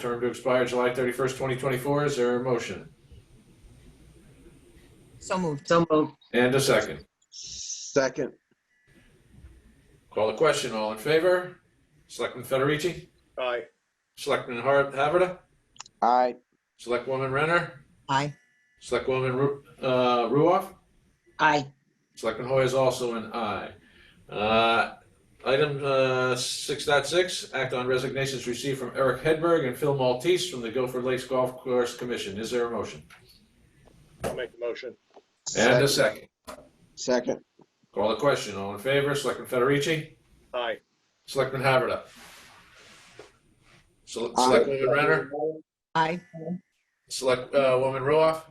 term to expire July 31st, 2024. Is there a motion? So moved. So moved. And a second. Second, Call the question. All in favor? Selectman Federici? aye, Selectman Har- Haverda? aye. Selectwoman Renner? Aye. Selectwoman Ru- uh, Ruoff? Aye. Selectman Hoy is also an aye. Uh, Item uh, 6.6, act on resignations received from Eric Hedberg and Phil Maltese from the Guilford Lakes Golf Course Commission. Is there a motion? I'll make the motion, And a Second. second. Second, Call the question. All in favor? Selectman Federici? aye, Selectman Haverda? Sel- Aye. Selectwoman Renner? Aye. Select uh, Woman Ruoff?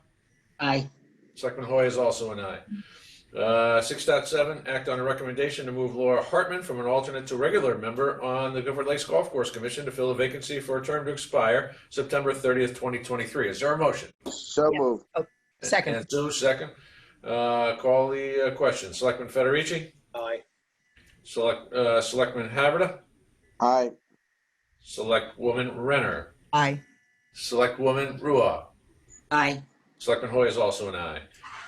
Aye. Selectman Hoy is also an aye. Uh, 6.7, act on a recommendation to move Laura Hartman from an alternate to regular member on the Guilford Lakes Golf Course Commission to fill a vacancy for a term to expire September 30th, 2023. Is there a motion? so Yeah. moved. Second. And so, second. Uh, Call the uh, question. Selectman Federici? aye, Select uh, Selectman Haverda? Aye, Selectwoman Renner? Aye. Selectwoman Ruoff? Aye. Selectman Hoy is also an aye.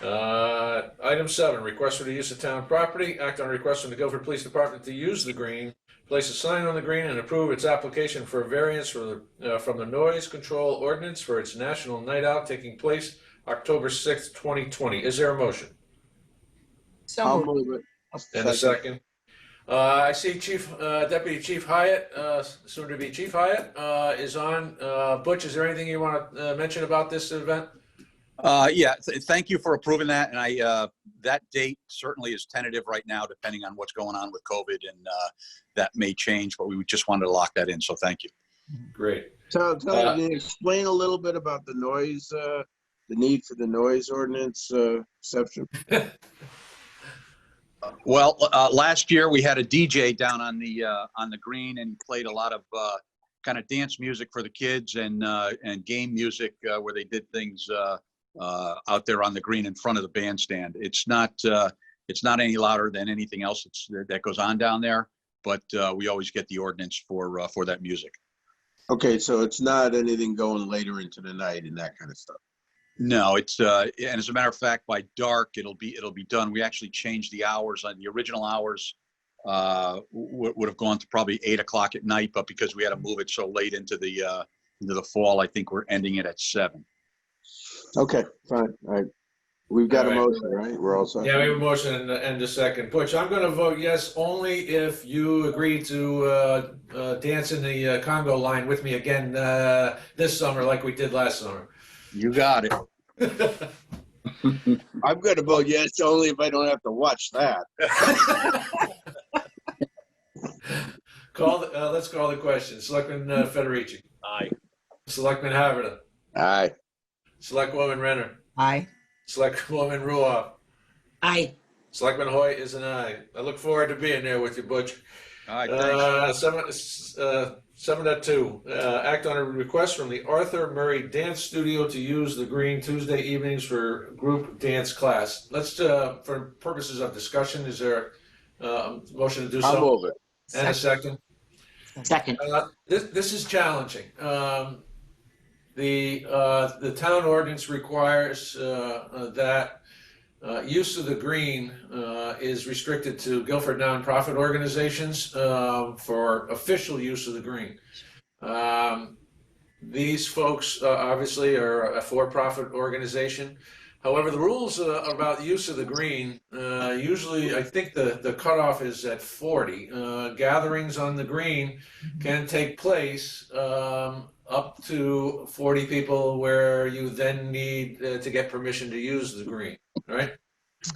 Uh, Item seven, request for the use of town property. Act on a request from the Guilford Police Department to use the green, place a sign on the green, and approve its application for a variance for the, uh, from the noise control ordinance for its national night out taking place October sixth, twenty twenty. Is there a motion? So I'll moved. move it. And a second. Uh, I see Chief, uh, Deputy Chief Hyatt, uh, soon to be Chief Hyatt, uh, is on. Uh, Butch, is there anything you want to mention about this event? Uh, yeah, th- thank you for approving that. And I, uh, that date certainly is tentative right now, depending on what's going on with COVID and, uh, that may change, but we just wanted to lock that in. So thank you. Great. Uh, Tom, Tom, can you explain a little bit about the noise, uh, the need for the noise ordinance, uh, exception? Well, uh, last year we had a DJ down on the, uh, on the green and he played a lot of, uh, kind of dance music for the kids and, uh, and game music, uh, where they did things, uh, uh, out there on the green in front of the bandstand. It's not, uh, it's not any louder than anything else that's, that goes on down there, but, uh, we always get the ordinance for, uh, for that music. Okay, so it's not anything going later into the night and that kind of stuff. No, it's, uh, and as a matter of fact, by dark, it'll be, it'll be done. We actually changed the hours on the original hours. Uh, would, would have gone to probably eight o'clock at night, but because we had to move it so late into the, uh, into the fall, I think we're ending it at seven. Okay, fine, all right. We've got a All right. motion, right? We're all set. Yeah, we have a motion and a- and a second. Butch, I'm going to vote yes only if you agree to uh, uh, dance in the uh, Congo line with me again uh, this summer like we did last summer. You got it. I'm gonna vote yes, only if I don't have to watch that. Call, the- uh, let's call the question. Selectman uh, Federici. aye, Selectman Haverda. Aye, Selectwoman Renner. Aye. Selectwoman Ruoff. Aye. Selectman Hoy is an aye. I look forward to being there with you, Butch. All right, thanks. Uh, Seven uh, seven dot two, uh, act on a request from the Arthur Murray Dance Studio to use the green Tuesday evenings for group dance class. Let's, uh, for purposes of discussion, is there uh, a motion to do I'll so? move it. And a second? Second. Uh, This, this is challenging. Um, The, uh, the town ordinance requires uh, uh, that uh, use of the green uh, is restricted to Guilford nonprofit organizations uh, for official use of the green. Um, These folks uh, obviously are a for-profit organization. However, the rules uh, about use of the green, uh, usually, I think the, the cutoff is at 40. Uh, Gatherings on the green can take place um, up to 40 people where you then need uh, to get permission to use the green, right?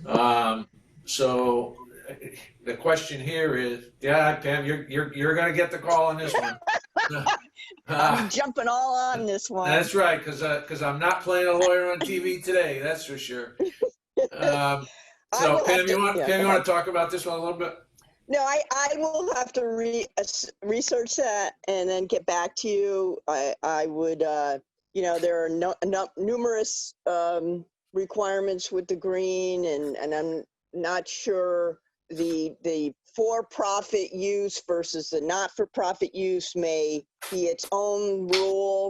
Um, so uh, the question here is, yeah, Pam, you're, you're, you're going to get the call on this one. Uh, I'm jumping all on this one. that's right, because because I'm not playing a lawyer on TV today, that's for sure. Um, I will so have Pam, to- you want yeah, Pam, you go want to talk about this one a little bit? No, I, I will have to re, ass- research that and then get back to you. I, I would, uh, you know, there are no, no, numerous, um, requirements with the green and, and I'm not sure the, the for-profit use versus the not-for-profit use may be its own rule